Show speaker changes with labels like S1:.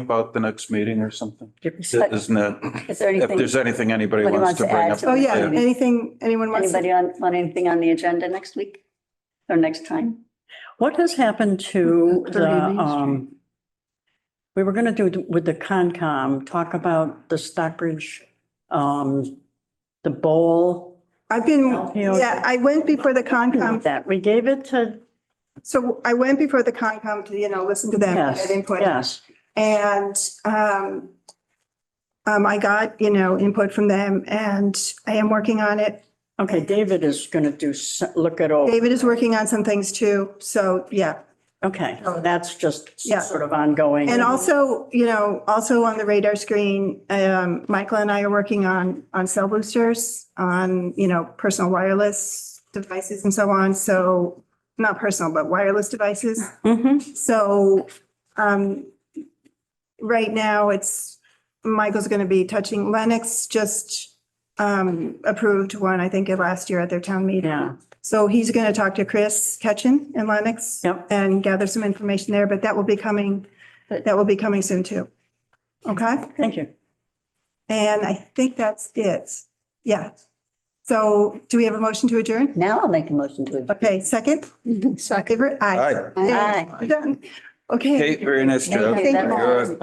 S1: about the next meeting or something?
S2: Is
S1: Isn't it,
S2: there
S1: if
S2: Uh, anything,
S1: there's anything anybody
S2: Anybody
S1: wants to bring
S2: wants
S1: up?
S2: to
S3: Oh, yeah,
S2: Yeah.
S3: anything, anyone wants to,
S2: anybody on, on anything on the agenda next week or next time?
S4: What has happened to the,
S3: 30 Main
S4: um, we were gonna do with the Concom, talk about the Stockbridge, um, the bowl.
S3: I've been,
S4: LPO.
S3: yeah, I went before the Concom,
S4: That, we gave it to,
S3: so I went before the Concom to, you know, listen to them,
S4: yes,
S3: get input.
S4: yes.
S3: And um, um, I got, you know, input from them and I am working on it.
S4: Okay, David is gonna do, s- look it over.
S3: David is working on some things too, so, yeah.
S4: Okay, that's just
S3: Yeah.
S4: sort of ongoing.
S3: And also, you know, also on the radar screen, um, Michael and I are working on, on cell boosters, on, you know, personal wireless devices and so on, so, not personal, but wireless devices.
S4: Mhm.
S3: So, um, right now it's, Michael's going to be touching Lennox just, um, approved one, I think, at last year at their town meeting.
S4: Yeah,
S3: So he's going to talk to Chris Ketchin in Lennox.
S4: Yep.
S3: And gather some information there, but that will be coming, that will be coming soon too. Okay?
S4: thank you.
S3: And I think that's it. Yeah. So do we have a motion to adjourn?
S2: Now I'll make a motion to adjourn.
S3: Okay, second? Second. Favorite? Aye.
S1: Hi,
S2: Aye.
S3: Done. Okay.
S1: Kate, very nice
S2: Thank
S1: job.
S2: you.
S3: Thank
S2: That's
S3: you.
S2: all.